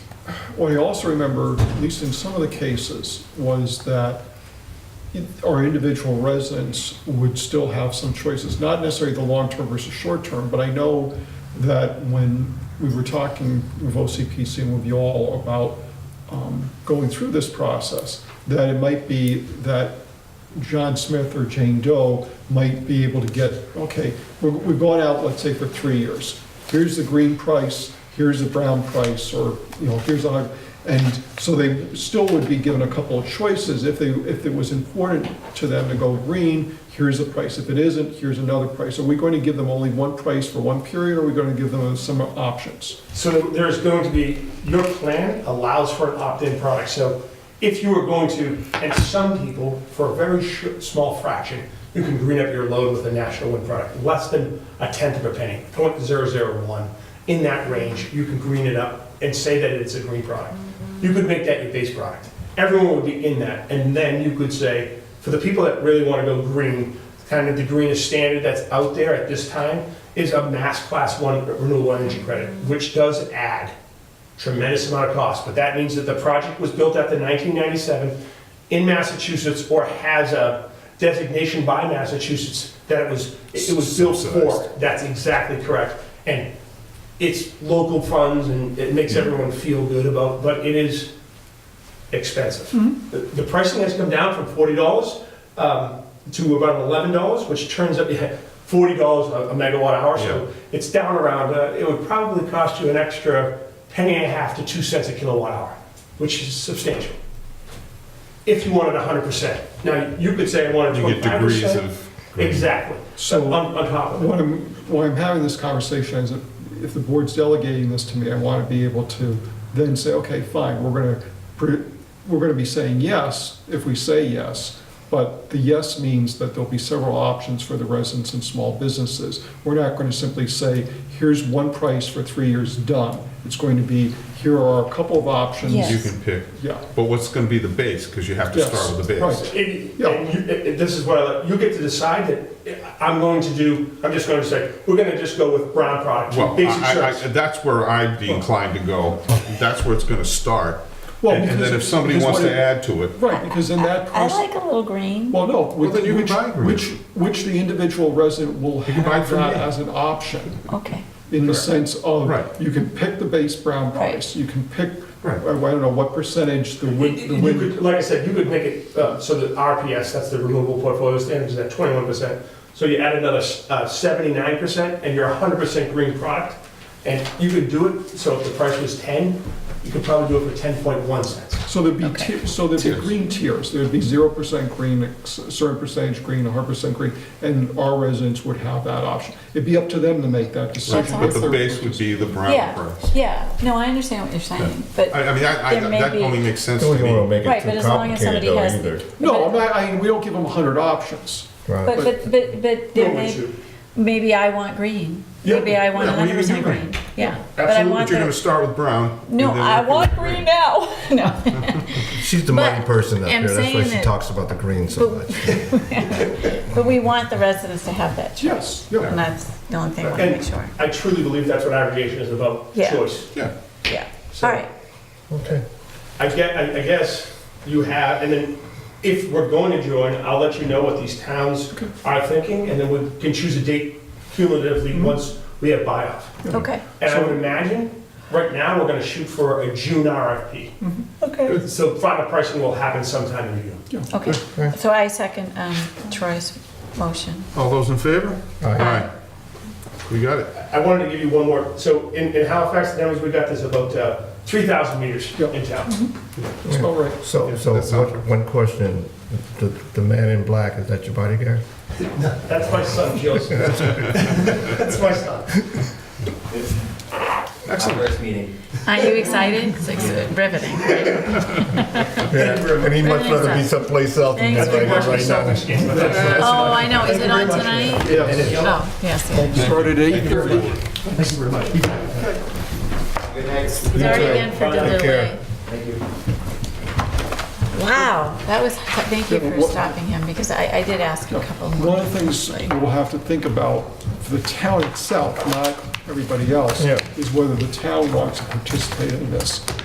What I also remember, at least in some of the cases, was that in- our individual residents would still have some choices, not necessarily the long-term versus short-term, but I know that when we were talking with OCPC and with you all about um, going through this process, that it might be that John Smith or Jane Doe might be able to get, okay, we're- we've gone out, let's say, for three years. Here's the green price, here's the brown price, or, you know, here's a, and so they still would be given a couple of choices if they, if it was important to them to go green, here's a price. If it isn't, here's another price. Are we going to give them only one price for one period, or are we going to give them some options? So there's going to be, your plan allows for an opt-in product. So if you were going to, and some people, for a very sh- small fraction, you can green up your load with a national wind product, less than a tenth of a penny, 0.001. In that range, you can green it up and say that it's a green product. You could make that your base product. Everyone would be in that. And then you could say, for the people that really want to go green, kind of the greenest standard that's out there at this time is a mass class one renewable energy credit, which does add tremendous amount of cost, but that means that the project was built after 1997 in Massachusetts or has a designation by Massachusetts that it was, it was built for. Subsidized. That's exactly correct. And it's local funds and it makes everyone feel good about, but it is expensive. Hmm? The the pricing has come down from $40 um, to about $11, which turns up, yeah, $40 a- a megawatt hour, so it's down around, uh, it would probably cost you an extra penny and a half to two cents a kilowatt hour, which is substantial. If you wanted 100%. Now, you could say I wanted You get degrees 25%. of. Exactly, on So on top of it. What I'm, why I'm having this conversation is if, if the board's delegating this to me, I want to be able to then say, okay, fine, we're going to, we're going to be saying yes if we say yes, but the yes means that there'll be several options for the residents and small businesses. We're not going to simply say, here's one price for three years, done. It's going to be, here are a couple of options. You Yes. can pick, Yeah, but what's gonna be the base, because you have to Yes, start with the base. right. And Yeah. and you, and this is what I, you get to decide that I'm going to do, I'm just going to say, we're going to just go with brown product, Well, basic I- I, I, service. that's where I'd be inclined to go, that's where it's gonna start. Well, And and because- then if somebody because wants what to it- add to it, right, because in that I process. like a little green. Well, no, Well, then you can which, buy green. which, which the individual resident will can buy it have from that me. as an option, Okay. in the Correct. sense of, Right. you can pick the base brown Right. price, you can pick, oh, I I Right. don't know, what percentage the You wind, the you wind, could, like I said, you could make it, uh, so the RPS, that's the removable portfolio standard, is at twenty-one percent. So you add another uh, seventy-nine percent, and you're hundred percent green product. And you could do it, so if the price was ten, you could probably do it for ten point one cents. so there'd be, Okay. ti- so there'd be Tiers. green tiers, there'd be zero percent green, a certain percentage green, a hundred percent green, and our residents would have that option. It'd be up to them to make that but decision. That's but the Third base would purchase. be the brown Yeah, price. yeah. No, I understand what you're saying, but, I, I mean, I, I, There may that be- only makes sense to Don't want to me. make right, it but too as long as complicated somebody though has. either. No, I'm not, I, we don't give them a hundred options. Right. But, but, but, but there may, maybe I want green. Yeah, Maybe I want yeah, well, you hundred can percent do green. green. Yeah. But I Absolutely, want but you're gonna that. start with brown. and No, then I work your want way green now. No. She's the But money person up I'm here. That's why saying she that- talks about the green so But- much. But we want the residents to have that choice. Yes, yeah. And that's the only thing I want to And- make sure. I truly believe that's what aggregation is about, Yeah. choice. Yeah, Yeah. So- All right. Okay. I get, I, I guess you have, and then if we're going to join, I'll let you know what these towns are thinking, and then we can choose a date cumulatively once we have buy-off. Okay. And I would imagine, right now, we're gonna shoot for a June RFP. Okay. So final pricing will happen sometime in June. Okay. So I second um, Troy's motion. all those in favor? Aye. We got it. I wanted to give you one more, so in, in Halifax, Denver, we've got this about, uh, three thousand meters Yeah. in town. That's about right. So, Yeah, so that sounds one, one question, the, the man in black, is that your bodyguard? That's my son, Joseph. That's my son. Excellent. First meeting. Aren't you excited? It's like riveting. Yeah, and he much rather be someplace else than Thanks that very right much. now, right now. Oh, I know. Is it on tonight? Yes. Oh, yes. yes. Started at eight thirty. Good night. It's already in for Take delivery. care. Thank you. Wow, that was, thank you Yeah, for what- stopping him, because I, I did ask a couple more. One of the things like- we'll have to think about for the town itself, not everybody else, Yeah. is whether the town wants to participate in this.